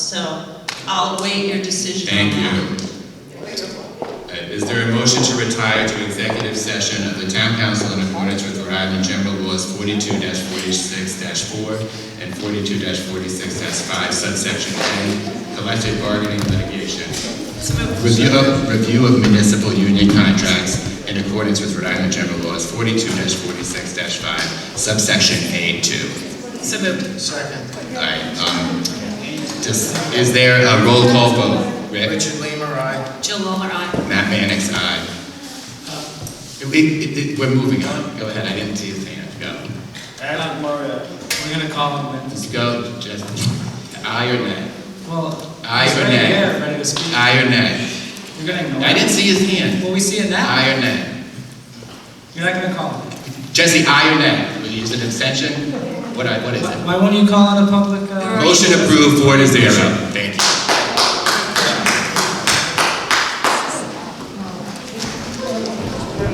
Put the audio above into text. So I'll await your decision on Thank that. you. Uh, Is there a motion to retire to executive session of the town council in accordance with Rhode Island General Laws forty-two forty-six four and forty-two forty-six five subsection A, collective bargaining litigation? Review of, review of municipal union contracts in accordance with Rhode Island General Laws forty-two forty-six five subsection A two. So moved. Second. All right, um, just, is there a roll call vote? Rick? Richard Lima, aye. Jill Lawler, aye. Matt Mannix, aye. We- it- it- we're moving on. Go ahead, I didn't see his hand. Go. Adam Murray, we're gonna call him in. Just go, just, aye or nay? Well, Aye he's or already nay? there, ready to speak. Aye or nay? You're gonna ignore I it. didn't see his hand. Well, we see it now. Aye or nay? You're not gonna call him. Jesse, aye or nay? Will you use an abstention? What, I- what is it? Why won't you call on the public? uh, Alright. Motion approved, four to zero.